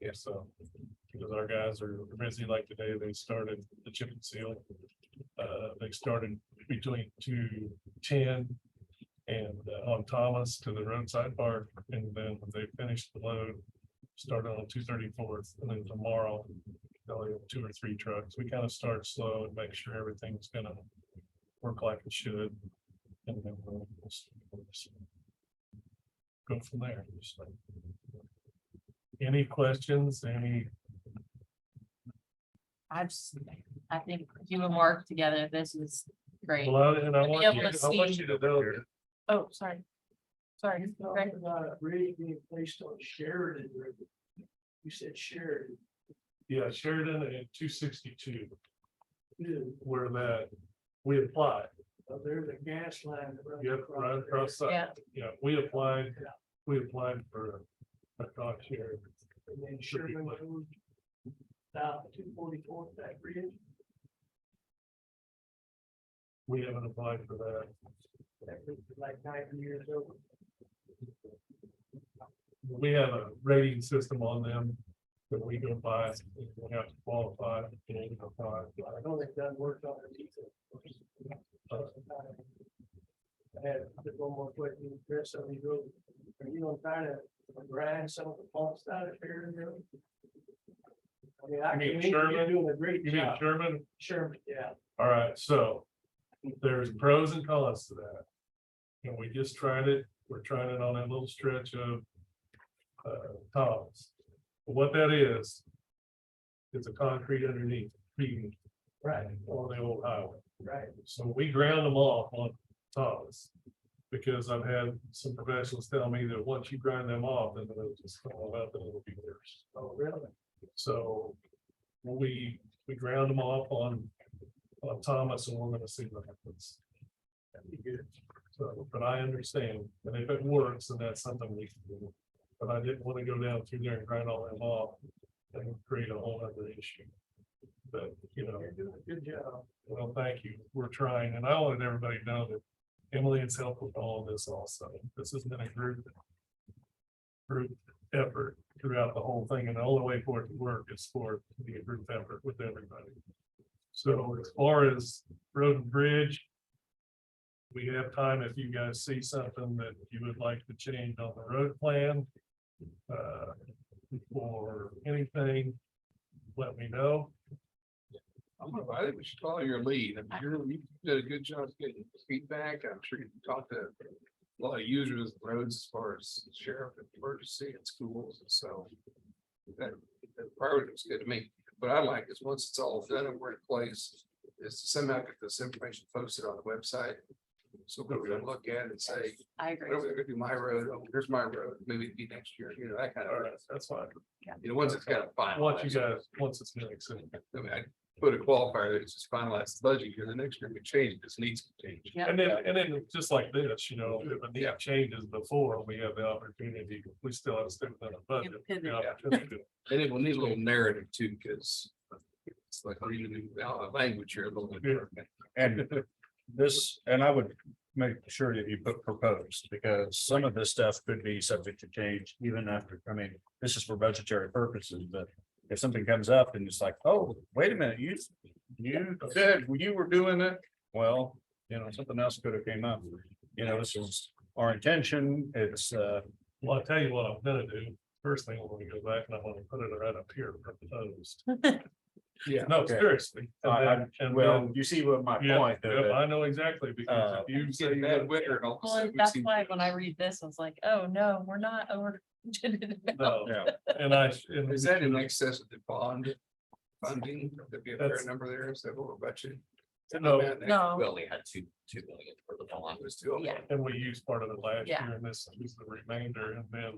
Yeah, so, because our guys are busy like today, they started the chip and seal. Uh, they started between two ten and uh, on Thomas to the roadside park, and then they finished the load. Started on two thirty-fourth, and then tomorrow, they'll have two or three trucks. We kind of start slow and make sure everything's gonna work like it should. And then we'll we'll s- we'll s- go from there. Just like- Any questions, any? I've, s- I think you and Mark together, this is great. Well, I- and I To be want able you, to I want see- you to know. Oh, sorry. Sorry, You Greg. talked about a bridge being placed on Sheridan River. You said Sheridan, Yeah, Sheridan and two sixty-two, too. where that, we applied, Uh, there's a gas line. that runs yeah, right there. across, the- yeah, yeah, we applied, we applied for a cost share. And then Should be Sherman like- Road. South two forty-four, that bridge, We haven't applied for that. that bridge is like ninety years old. We have a rating system on them that we go by, and we have to qualify. and apply. I know they've done work on it. either. I had just one more question, Chris, on these roads. Are you gonna try to grind some of the faults out of Sheridan Road? I mean, I You mean can, you're Sherman? doing a great You mean job, Sherman? Sherman, yeah. All right, so there's pros and cons to that. And we just tried it, we're trying it on that little stretch of uh, Thomas. What that is, it's a concrete underneath, being Right, on the old highway. right. So we ground them off on Thomas. Because I've had some professionals tell me that once you grind them off, then they'll just fall out, and it'll be theirs. Oh, really? So we, we ground them off on, on Thomas and we're gonna see what happens. That'd be good. So, but I understand, and if it works, then that's something we can do. But I didn't wanna go down through there and grind all them off and create a whole other issue. But, you know, You're doing a good job. well, thank you. We're trying, and I wanted everybody to know that Emily has helped with all of this also. This has been a group group effort throughout the whole thing, and the only way for it to work is for it to be a group effort with everybody. So as far as road and bridge, we have time if you guys see something that you would like to change on the road plan uh, or anything, let me know. I'm gonna, I think we should follow your lead. I mean, you're, you did a good job getting feedback. I'm sure you talked to a lot of users of roads as far as sheriff and emergency and schools and so. That, that priority was good to me. What I like is once it's all done and we're in place, is to somehow get this information posted on the website. So we can look at it and say, I what are we agree. gonna do my road? Oh, here's my road. Maybe it'd be next year, you know, that kind All of, right, that's fine. you know, once it's kind of finalized. Once you guys, once it's mixed in. I mean, I put a qualifier, that it's just finalized the budget, because the next year we change, this needs to change. Yeah. And then, and then just like this, you know, if a need changes before, we have the opportunity, we still have to stick with our budget. You pivot. the opportunity to- And it will need a little narrative too, because it's like reading out of language here a little bit. And this, and I would make sure that you put proposed, because some of this stuff could be subject to change even after, I mean, this is for budgetary purposes, but if something comes up and it's like, oh, wait a minute, you, you said you were doing it, well, you know, something else could have came up. You know, this is our intention, it's, uh, Well, I'll tell you what I'm gonna do. First thing, I'm gonna go back and I'm gonna put it right up here proposed. Yeah. No, Okay. seriously. And I- then- and well, then- you see what my Yeah, point, though, yeah, that I know exactly because Uh, if you You say get a you bad got- winter and all of a Well, sudden we that's seem- why when I read this, I was like, oh, no, we're not over. no, yeah. and I, and Is that in excess of the bond funding? There'd be a fair That's- number there, is that what we're budgeting? No. No. We only had two, two million for the bond. It was two. okay. Yeah. And we used part of it last year Yeah. and this is the remainder and then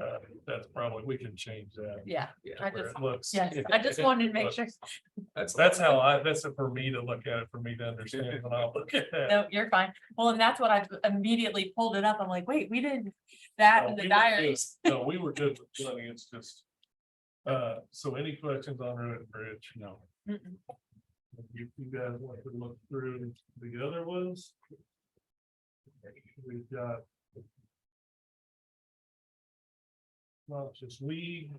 uh, that's probably, we can change that. Yeah, I Yeah. where just- it Looks. yes, I just wanted to make Look, sure. That's, That's how I, that's for me to look at it, for me to understand when I look at that. No, you're fine. Well, and that's what I immediately pulled it up. I'm like, wait, we did that No, in we the were good. diaries. No, we were good with money, it's just. Uh, so any questions on road and bridge? No. Mm-mm. You, you guys want to look through the other ones? We've got. Well, just we,